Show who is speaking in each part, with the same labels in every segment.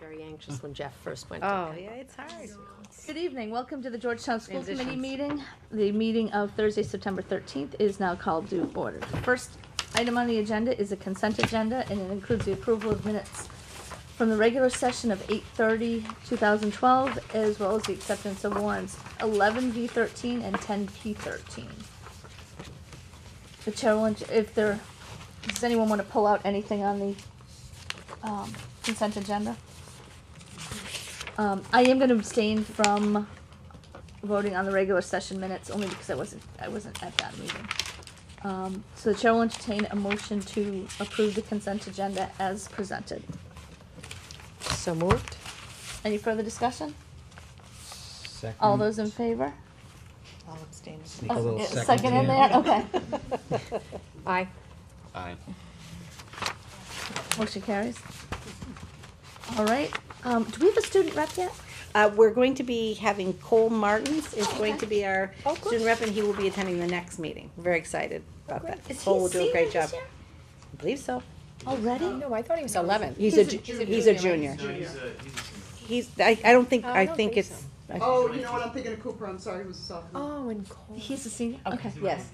Speaker 1: very anxious when Jeff first went
Speaker 2: Oh,
Speaker 1: to
Speaker 2: yeah, it's hard.
Speaker 3: Good evening. Welcome to the Georgetown School Committee
Speaker 2: Transitions.
Speaker 3: meeting. The meeting of Thursday, September 13th is now called due order. The First item on the agenda is a consent agenda, and it includes the approval of minutes from the regular session of 8:30, 2012, as well as the acceptance of warrants 11V13 and 10P13. The chair will, int- if there, does anyone want to pull out anything on the um, consent agenda? Um, I am gonna abstain from voting on the regular session minutes, only because I wasn't, I wasn't at that meeting. Um, so the chair will entertain a motion to approve the consent agenda as presented.
Speaker 1: So moved?
Speaker 3: Any further discussion?
Speaker 4: Second.
Speaker 3: All those in favor?
Speaker 2: I'll abstain.
Speaker 4: Sneak a
Speaker 3: Oh,
Speaker 4: little
Speaker 3: yeah,
Speaker 4: second.
Speaker 3: Second in
Speaker 4: in.
Speaker 3: there, okay.
Speaker 1: Aye.
Speaker 4: Aye.
Speaker 3: Motion carries. All right, um, do we have a student rep yet?
Speaker 2: Uh, we're going to be having Cole Martins is
Speaker 3: Oh,
Speaker 2: going
Speaker 3: okay.
Speaker 2: to be our
Speaker 3: Oh, good.
Speaker 2: student rep, and he will be attending the next meeting. Very excited about that. Cole will do a great job. I believe so.
Speaker 3: Already?
Speaker 5: No, I thought he was eleven.
Speaker 2: He's a, ju- he's a junior.
Speaker 6: No, he's a, he's a
Speaker 2: He's, I, I don't think,
Speaker 5: Oh, I
Speaker 2: I
Speaker 5: don't
Speaker 2: think
Speaker 5: think
Speaker 2: it's,
Speaker 7: Oh, you know what? I'm thinking of Cooper. I'm sorry, he was a sophomore.
Speaker 5: Oh, and Cole.
Speaker 3: He's a senior, okay.
Speaker 2: yes.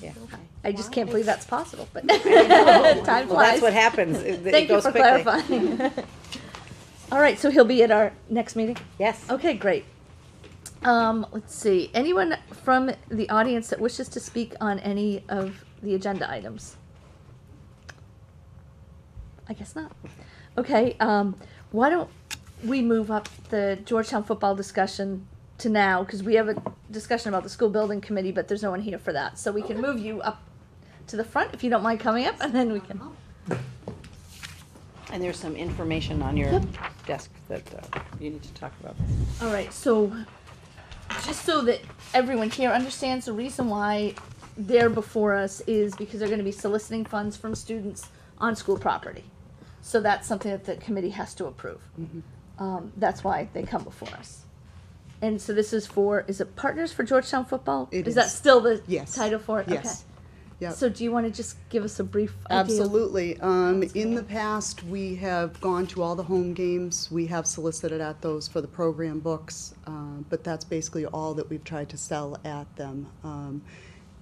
Speaker 2: Yeah.
Speaker 3: I just
Speaker 5: Wow.
Speaker 3: can't believe that's possible, but time
Speaker 2: Well, that's
Speaker 3: flies.
Speaker 2: what happens. It- it
Speaker 3: Thank you
Speaker 2: goes
Speaker 3: for
Speaker 2: quickly.
Speaker 3: clarifying. All right, so he'll be at our next meeting?
Speaker 2: Yes.
Speaker 3: Okay, great. Um, let's see, anyone from the audience that wishes to speak on any of the agenda items? I guess not. Okay, um, why don't we move up the Georgetown football discussion to now, because we have a discussion about the school building committee, but there's no one here for that, so we can move you up to the front if you don't mind coming up, and then we can.
Speaker 2: And there's some information on your
Speaker 3: Yep.
Speaker 2: desk that uh, you need to talk about.
Speaker 3: All right, so just so that everyone here understands the reason why they're before us is because they're going to be soliciting funds from students on school property. So that's something that the committee has to approve.
Speaker 7: Mm-hmm.
Speaker 3: Um, that's why they come before us. And so this is for, is it Partners for Georgetown Football?
Speaker 7: It
Speaker 3: that
Speaker 7: is.
Speaker 3: still the
Speaker 7: Yes.
Speaker 3: title for it?
Speaker 7: Yes.
Speaker 3: Okay.
Speaker 7: Yep.
Speaker 3: So do you want to just give us a brief idea? of-
Speaker 7: Absolutely. Um, in the past, we have gone to all the home games. We have solicited at those for the program books, um, but that's basically all that we've tried to sell at them. Um,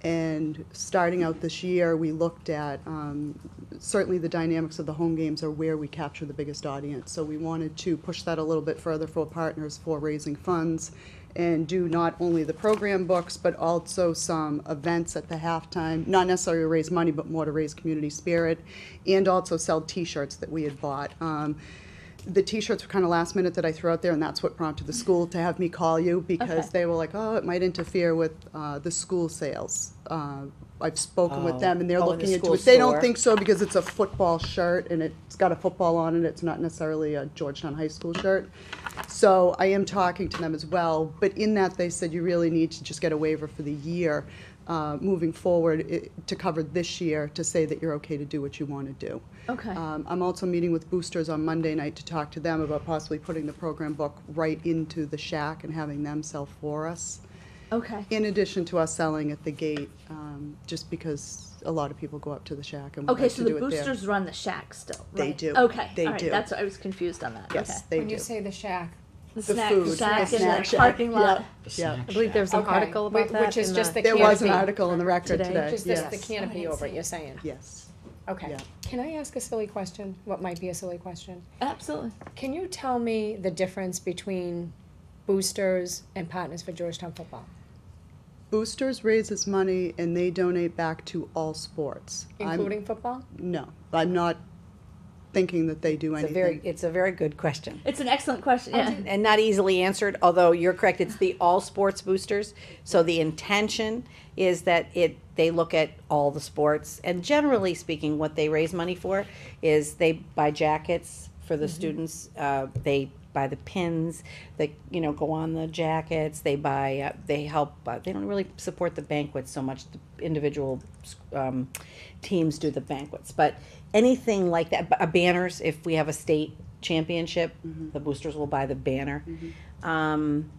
Speaker 7: and starting out this year, we looked at um, certainly the dynamics of the home games are where we capture the biggest audience. So we wanted to push that a little bit further for partners for raising funds and do not only the program books, but also some events at the halftime, not necessarily to raise money, but more to raise community spirit, and also sell T-shirts that we had bought. Um, the T-shirts were kind of last minute that I threw out there, and that's what prompted the school to have me call you because
Speaker 3: Okay.
Speaker 7: they were like, "Oh, it might interfere with uh, the school sales." Uh, I've spoken
Speaker 2: Oh.
Speaker 7: with them, and they're
Speaker 2: Oh, in the
Speaker 7: looking into
Speaker 2: school
Speaker 7: it. They don't
Speaker 2: store.
Speaker 7: think so because it's a football shirt and it's got a football on it. It's not necessarily a Georgetown High School shirt. So I am talking to them as well, but in that they said you really need to just get a waiver for the year, uh, moving forward, it- to cover this year, to say that you're okay to do what you want to do.
Speaker 3: Okay.
Speaker 7: Um, I'm also meeting with boosters on Monday night to talk to them about possibly putting the program book right into the shack and having them sell for us.
Speaker 3: Okay.
Speaker 7: In addition to us selling at the gate, um, just because a lot of people go up to the shack and we
Speaker 3: Okay,
Speaker 7: like
Speaker 3: so
Speaker 7: to
Speaker 3: the
Speaker 7: do it there.
Speaker 3: boosters run the shack still,
Speaker 7: They
Speaker 3: right?
Speaker 7: do.
Speaker 3: Okay,
Speaker 7: They
Speaker 3: all right,
Speaker 7: do.
Speaker 3: that's, what I was confused on that, okay.
Speaker 7: Yes, they
Speaker 5: When you
Speaker 7: do.
Speaker 5: say the shack.
Speaker 3: The
Speaker 7: The
Speaker 3: snack shack
Speaker 7: food, the
Speaker 3: and
Speaker 7: snack
Speaker 3: the
Speaker 7: shack,
Speaker 3: parking lot.
Speaker 7: yeah. Yeah.
Speaker 4: Snack
Speaker 5: I believe there was
Speaker 1: an article about that
Speaker 5: Which is
Speaker 1: in
Speaker 5: just
Speaker 1: the-
Speaker 5: the
Speaker 7: There
Speaker 5: canopy.
Speaker 7: was an article in the record
Speaker 1: Today?
Speaker 7: today.
Speaker 5: Just this, the
Speaker 7: Yes.
Speaker 5: canopy over it, you're saying.
Speaker 7: Yes.
Speaker 5: Okay.
Speaker 7: Yeah.
Speaker 5: Can I ask a silly question? What might be a silly question?
Speaker 3: Absolutely.
Speaker 5: Can you tell me the difference between boosters and partners for Georgetown football?
Speaker 7: Boosters raises money and they donate back to all sports. I'm-
Speaker 5: Including football?
Speaker 7: No, I'm not thinking that they do
Speaker 2: It's a very,
Speaker 7: anything.
Speaker 2: it's a very good question.
Speaker 3: It's an excellent question, yeah.
Speaker 2: and not easily answered, although you're correct, it's the all sports boosters. So the intention is that it, they look at all the sports, and generally speaking, what they raise money for is they buy jackets for the students, uh, they buy the pins that, you know, go on the jackets, they buy, uh, they help, uh, they don't really support the banquets so much, the individual, um, teams do the banquets, but anything like that, b- uh, banners, if we have a state championship, the boosters will buy the banner. Um,